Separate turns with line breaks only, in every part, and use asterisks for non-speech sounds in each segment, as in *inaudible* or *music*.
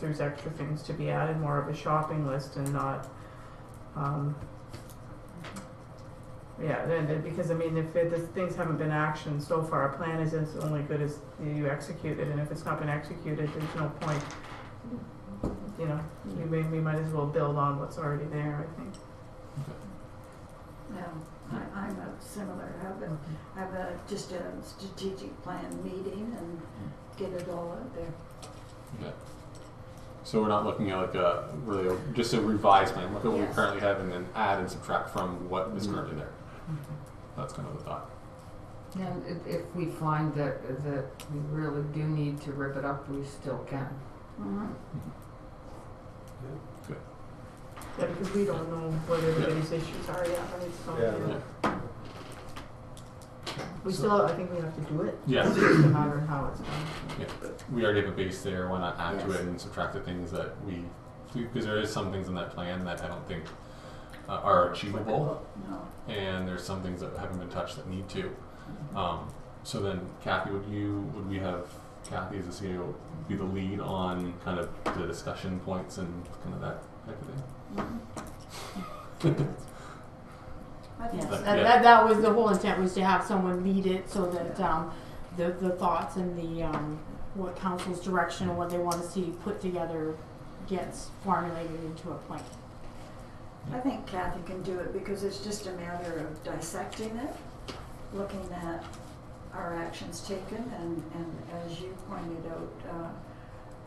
there's extra things to be added, more of a shopping list and not, um, yeah, then, then- because I mean, if it, the things haven't been actioned so far, a plan is as only good as you execute it, and if it's not been executed, there's no point. You know, we may, we might as well build on what's already there, I think.
No, I, I'm a similar, I have a, I have a, just a strategic plan meeting and get it all out there.
Okay. So we're not looking at like a really a, just a revised plan. Look at what we
Yes. Mm-hmm.
currently have, and then add and subtract from what is
Mhm.
currently there. That's kind of the thought.
Now, if, if we find that, that we really do need to rip it up, we still can.
Mhm.
Yeah, because we don't know what everybody's issues are yet, right, so.
Yeah,
Yeah.
We
So-
still, I think we have to do it. It's
Yeah,
just a matter of how it's done.
we already have a base there. Why not add to
Yes.
it and subtract the things that we because there is some things in that plan that I don't think uh, are achievable,
No,
and there's some things that haven't been touched that need to.
Mm-hmm.
Um, so then, Kathy, would you would we have Kathy as the CEO be the lead on kind of the discussion points and kind of that type of thing?
Mhm. Mm-hmm. I think
But-
Yes,
so.
that,
yeah.
that, that was, the whole intent was to have someone lead it so that, um, the, the thoughts and the, um, what council's direction and what they wanna see put together gets formulated into a plan.
I think Kathy can do it because it's just a matter of dissecting it, looking at our actions taken and, and as you pointed out, uh,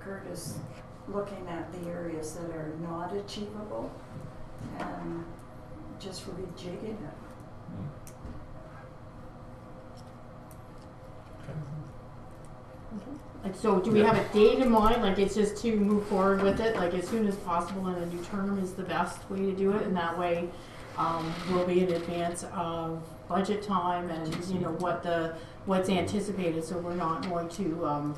Curtis, looking at the areas that are not achievable and just rejigging it.
Mm-hmm. Like, so do we
Yeah.
have a date in mind, like it's just to move forward with it, like as soon as possible in a new term is the best way to do it, and that way, um, we'll be in advance of budget time and, you know, what the, what's anticipated, so we're not going to, um,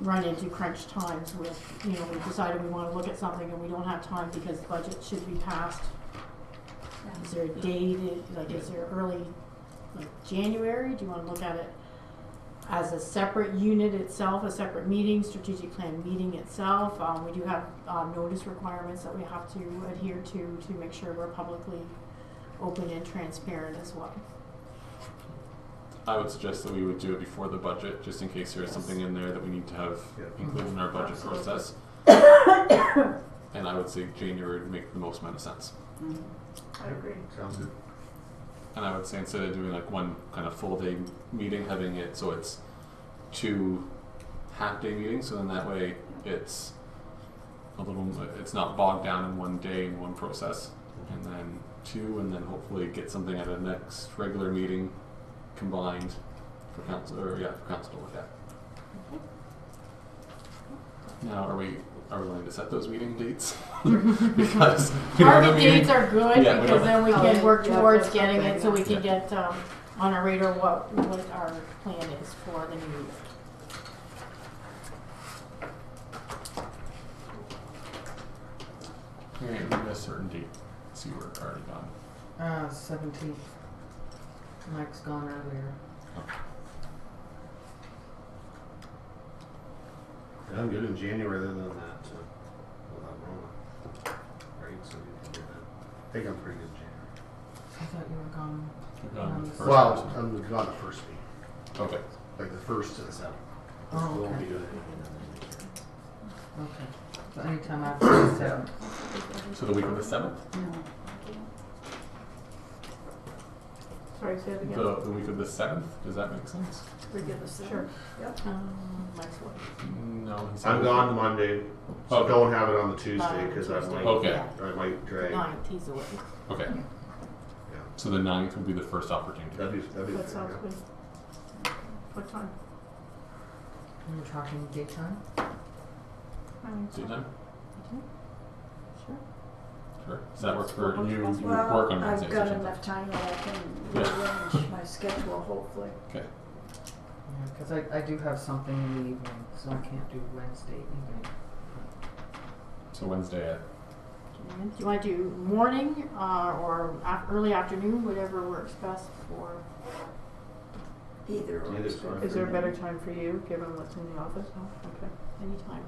run into crunch times with, you know, we decided we wanna look at something and we don't have time because budget should be passed. Is there a date, i- like, is there early, like, January, do you wanna look at it as a separate unit itself, a separate meeting, strategic plan meeting itself. Um, we do have, um, notice requirements that we have to adhere to, to make sure we're publicly open and transparent
*laughs*
as well.
I would suggest that we would do it before the budget, just in case there is something in there that we need to have
Yeah.
included in our budget
*coughs*
process. And I would say January would make the most amount of sense.
Mhm. I agree.
Sounds good.
And I would say instead of doing like one kind of full day meeting, having it so it's two half day meetings. So then that way it's a little, it's not bogged down in one day in one process, and then two, and then hopefully get something at a next regular meeting combined for council or yeah, for council to look at. Now, are we are we willing to set those meeting dates? *laughs* because we don't have a
Target
meeting-
dates are good
Yeah, we
because
don't-
then we
Oh,
can
yeah,
work
yeah,
towards
that's
getting
something,
it, so we
yeah.
can get, um, on our radar what, what our plan is for the new year.
All right, we got a certain date. Let's see, we're already gone.
Uh, seventeenth. Mike's gone earlier.
Yeah, I'm good in January other than that, uh, so without Rona. Right, so we can do that. I think I'm pretty good in January.
I thought you were gone.
We're gone the first
Well, um,
person.
I'm gone the first week,
okay.
like the first to the seventh.
Oh,
I won't
okay.
be doing
Okay. So anytime after the seventh.
So the week of the seventh,
No.
Sorry, say it again.
the, the week of the seventh. Does that make sense?
We give us
Sure.
that. Yep.
Um, Mike's work.
No. he
it.
said-
I'm gone Monday, so
Okay.
don't have it on the Tuesday
By
because I
Tuesday.
might,
Okay.
Yeah.
I might drag.
Ninth, he's away.
Okay.
Yeah.
So the ninth would be the first opportunity.
That'd be that'd be
That
fair,
sounds
yeah.
good. What time?
You're talking daytime?
Daytime?
Sure.
Sure. Does that work for
Well,
you? You work on
Well, I've
Wednesdays or
got
something?
enough time that I can
Yeah.
rearrange my schedule, hopefully.
Okay.
Yeah, because I, I do have something in the evening, so I can't do Wednesday evening.
So Wednesday at
Do you want to do morning uh, or af- early afternoon, whatever works best for?
Either or.
Neither's
good.
fine.
Is there a better time for you, given what's in the office? No? Okay.
Anytime.